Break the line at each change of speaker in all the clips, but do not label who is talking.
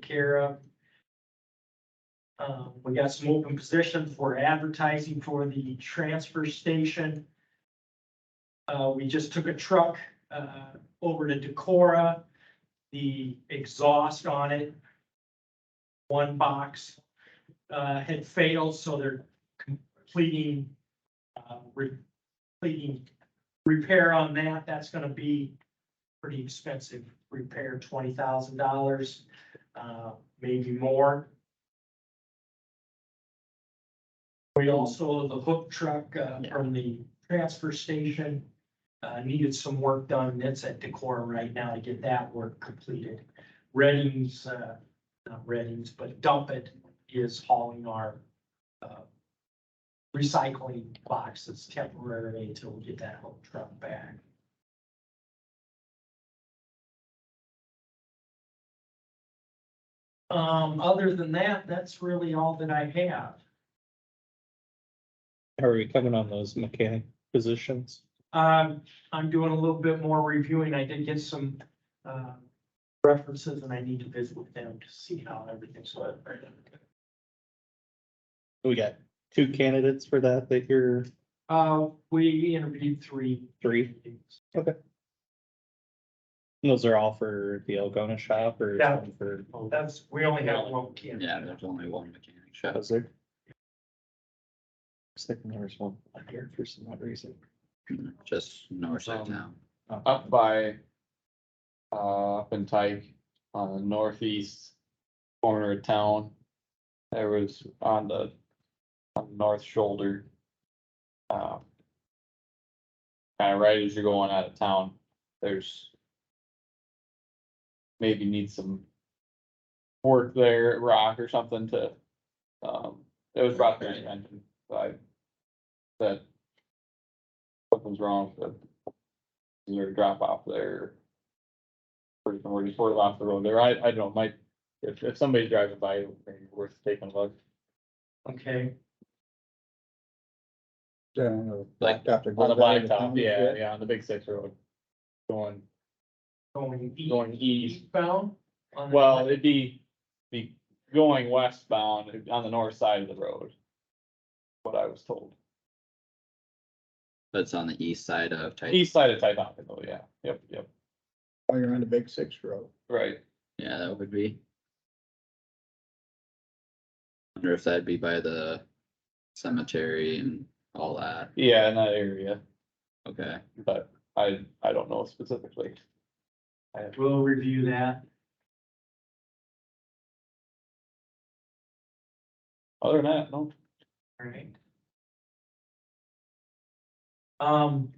care of. Um, we got some open positions for advertising for the transfer station. Uh, we just took a truck, uh, over to Decorah, the exhaust on it. One box, uh, had failed, so they're completing, uh, re- completing repair on that. That's gonna be pretty expensive repair, twenty thousand dollars, uh, maybe more. We also, the hook truck, uh, from the transfer station, uh, needed some work done. That's at Decorah right now to get that work completed. Reddings, uh, not Reddings, but Dump It is hauling our, uh, recycling boxes temporarily until we get that hook truck back. Um, other than that, that's really all that I have.
How are we coming on those mechanic positions?
Um, I'm doing a little bit more reviewing. I did get some, uh, references and I need to visit with them to see how everything's going.
We got two candidates for that that you're,
Uh, we interviewed three.
Three? and those are all for the Algona shop or?
Yeah.
some For,
Oh, That's, we only have one candidate.
Yeah, there's only one mechanic shop.
was there? Looks like there was one on here for some odd reason.
Just north of
Um,
town.
up by, uh, up in Tyke, on the northeast corner of town. There was on the, on the north shoulder. Uh, Kind of right as you're going out of town, there's maybe need some work there, rock or something to, um, it was brought to my attention, so I that something's wrong with it is there a drop off there? Or somewhere just sort of off the road there, I, I don't, might, if, if somebody's driving by, maybe worth taking a look.
Okay,
down
Like,
after.
On the blacktop, yeah, yeah, on the big six road. Going,
going east.
going east,
Eastbound? on the-
well, it'd be, be going westbound on the north side of the road. What I was told,
That's on the east side of Titan.
east side of Titanca though, yeah, yep, yep,
While you're on the big six road.
right,
Yeah, that would be. Wonder if that'd be by the cemetery and all that.
yeah, in that area,
Okay,
but I, I don't know specifically.
We'll review that.
Other than that, no,
Alright. Um,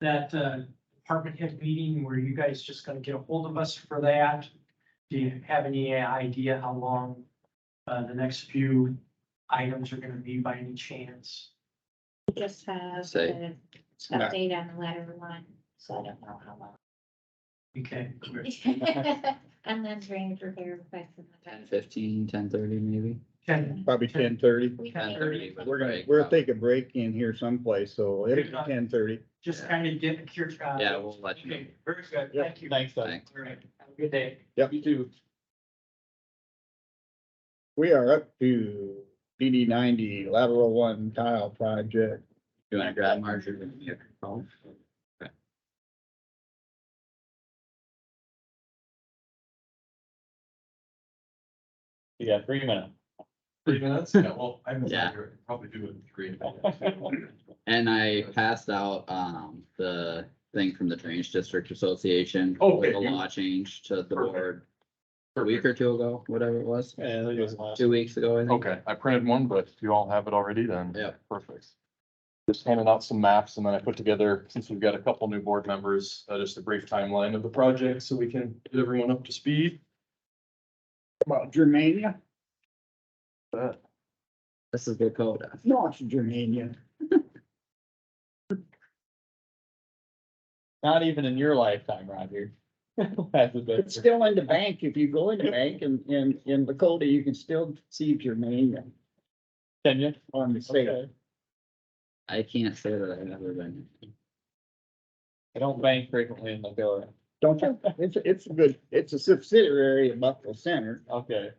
that, uh, department head meeting, were you guys just gonna get a hold of us for that? Do you have any idea how long, uh, the next few items are gonna be by any chance?
We just have
Say.
an update on the latter one, so I don't know how
Okay,
long. And then drainage repair request. and the
ten fifteen, ten thirty maybe?
Ken,
Probably
Hmm.
ten thirty.
We
Ten
can,
10:30, but
We're gonna,
break
we'll
up.
take a break in here someplace, so it'll be ten thirty.
just kind of get a cure. uh,
Yeah, we'll let you know.
Okay, very good,
Yeah.
thank you.
thanks, Doug.
Thanks.
Alright, have a good day.
Yep.
You too.
We are up to DD ninety lateral one tile project.
You wanna grab Marjorie? and give her a call?
You got three minutes.
Three minutes? Yeah, well, I must
Yeah.
probably do it in three minutes.
And I passed out, um, the thing from the Drainage District Association. with
Okay.
The law change to the
Perfect.
board a week or two ago, whatever it was,
Yeah, I think it was last.
two weeks ago, I think.
Okay, I printed one, but you all have it already then.
Yep.
Perfect. Just handing out some maps and then I put together, since we've got a couple new board members, uh, just a brief timeline of the project so we can get everyone up to speed.
About Germania?
But
This is Dakota.
No, it's Germania.
Not even in your lifetime, Roger. That's a bit-
It's still in the bank. If you go in the bank and, in in Dakota, you can still see Germania
Can you?
on the sale.
Okay.
I can't say that I've ever been.
I don't bank frequently in the
Don't you? It's, it's a good, it's a subsidiary of Buffalo Center.
Okay.